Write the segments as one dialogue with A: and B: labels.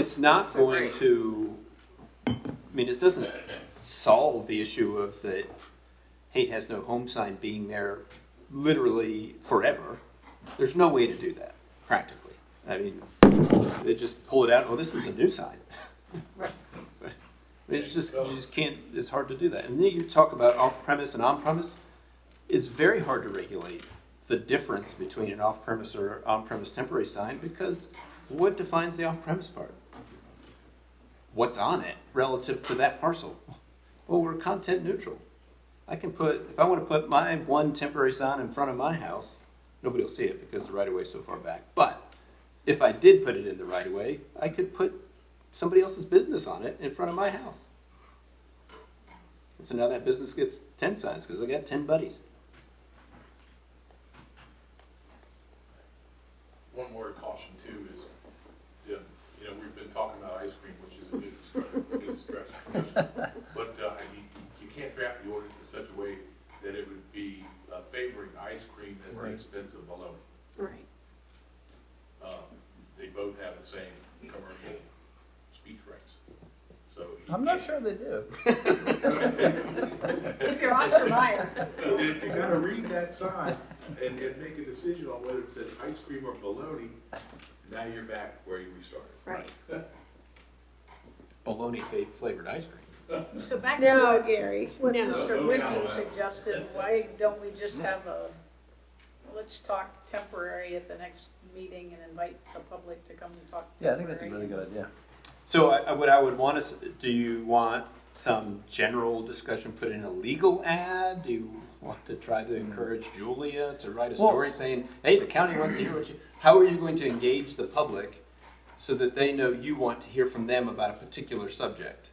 A: It's not going to, I mean, it doesn't solve the issue of the hate has no home sign being there literally forever. There's no way to do that practically. I mean, they just pull it out, oh, this is a new sign.
B: Right.
A: It's just, you just can't, it's hard to do that. And then you talk about off-premise and on-premise. It's very hard to regulate the difference between an off-premise or on-premise temporary sign because what defines the off-premise part? What's on it relative to that parcel? Well, we're content neutral. I can put, if I want to put my one temporary sign in front of my house, nobody will see it because the right of way is so far back. But if I did put it in the right of way, I could put somebody else's business on it in front of my house. And so now that business gets ten signs because I got ten buddies.
C: One word caution too is, yeah, you know, we've been talking about ice cream, which is a good stretch, good stretch. But, uh, I mean, you can't draft the ordinance in such a way that it would be uh, favoring ice cream at the
D: Right.
C: expense of baloney.
B: Right.
C: Um, They both have the same commercial speech rights, so. you
D: I'm not
C: can't-
D: sure they do.
B: If you're Oscar Mayer,
C: If you gotta read that sign and, and make a decision on whether it says ice cream or baloney, now you're back where you restarted.
B: right.
A: Bologna fa- flavored ice cream.
E: So back to
B: No, Gary,
E: what
B: no.
E: Mr.
C: No.
E: Woodson suggested, why don't we just have a, let's talk temporary at the next meeting and invite the public to come and talk temporary?
D: Yeah, I think that's a really good idea.
A: So I, I- what I would want is, do you want some general discussion put in a legal ad? Do you want to try to encourage
F: Hmm.
A: Julia to write a
D: Well-
A: story saying, hey, the county wants to hear what you, how are you going to engage the public so that they know you want to hear from them about a particular subject?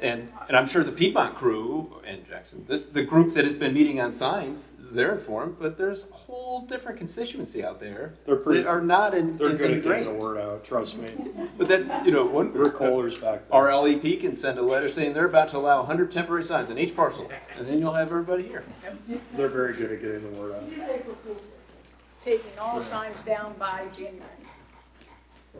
A: And, and I'm sure the Piedmont crew and Jackson, this, the group that has been meeting on signs, they're informed, but there's a whole different constituency out there
F: They're pretty-
A: that are not in,
F: They're
A: is
F: good at
A: ingrained.
F: getting the word out, trust me.
A: But that's, you know, one,
F: We're Kohler's back there.
A: RLEP E can send a letter saying they're about to allow 100 temporary signs in each parcel, and then you'll have everybody here.
F: They're very good at getting the word out.
E: Taking all signs down by January.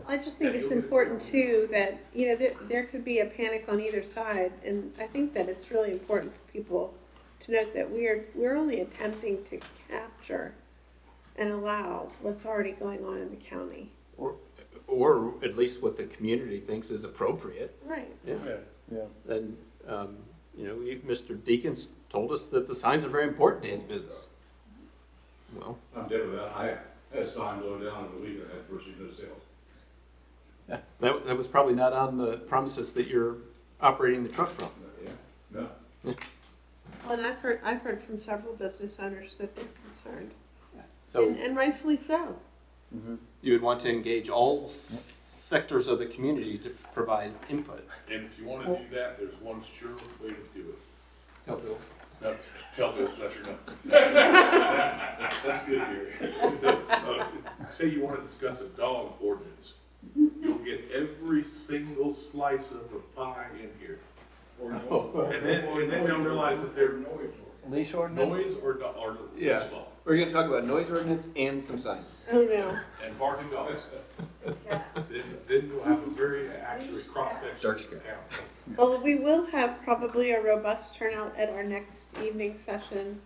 G: I just think it's important too that, you know, there, there could be a panic on either side. And I think that it's really important for people to note that we are, we're only attempting to capture and allow what's already going on in the county.
A: Or, or at least what the community thinks is appropriate.
G: Right.
A: Yeah.
F: Yeah, yeah.
A: And, um, you know, you- Mr. Deacons told us that the signs are very important to his business. Well,
C: I'm dead with that. I had a sign blow down in the week, I had virtually no sales.
A: that, that was probably not on the premises that you're operating the truck from.
C: Yeah. No.
G: Well, and I've heard, I've heard from several business owners that they're concerned,
A: So
G: and, and rightfully so.
A: you would want to engage all s- sectors of the community to provide input.
C: And if you wanna do that, there's one sure way to do it.
A: So, Bill,
C: No, Tell Bill Fletcher no. That's good here. Uh, Say you wanna discuss a dog ordinance, you'll get every single slice of the pie in here. And then, and then they'll realize that they're
D: Leash ordinance?
C: noise or, do- or
A: Yeah.
C: law,
A: We're gonna talk about noise ordinance and some signs.
G: Oh, no.
C: and barking dogs.
E: Yeah.
C: Then, then you'll have a very accurate cross-section.
A: Dark
C: of the
A: skies.
C: town.
G: Well, we will have probably a robust turnout at our next evening session,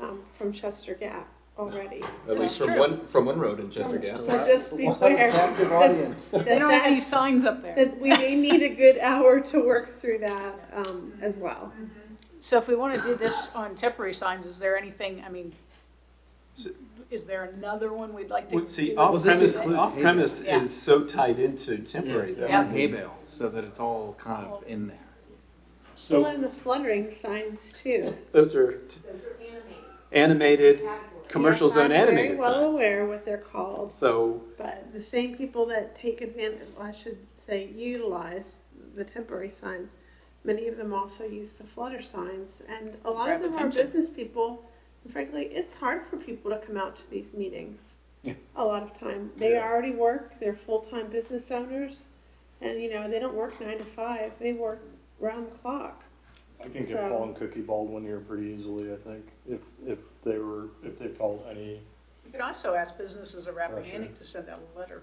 G: um, from Chester Gap already.
A: At
G: So-
A: least from
E: true.
A: one, from one road in Chester Gap.
G: So just be aware
D: Captive audience.
G: that,
E: They don't have any
G: that,
E: signs up there.
G: that we may need a good hour to work through that, um, as well.
E: So if we want to do this on temporary signs, is there anything, I mean,
A: So-
E: is there another one we'd like to
A: Well,
E: do?
A: see,
D: Well,
A: off
D: this
A: premise,
D: includes
A: off premise
E: Yeah.
A: is so tied into temporary though.
E: Yeah.
D: Hay bale, so that it's all kind of in there.
G: Well,
F: So,
G: and the fluttering signs too.
A: Those are t- animated, commercial
G: Yes,
A: zone
G: I'm very
A: animated
G: well
A: signs.
G: aware what they're called,
A: So,
G: but the same people that take advantage, well, I should say utilize the temporary signs, many of them also use the flutter signs. And a lot of
E: Grab
G: them are
E: attention.
G: business people. And frankly, it's hard for people to come out to these meetings.
A: Yeah.
G: A lot of time. They
F: Yeah.
G: already work, they're full-time business owners. And, you know, they don't work nine to five, they work round the clock.
F: I can get
G: So-
F: Paul and Cookie Baldwin here pretty easily, I think, if, if they were, if they felt any,
E: You could also ask businesses around
F: Oh, sure.
E: Rappahannock to send out a letter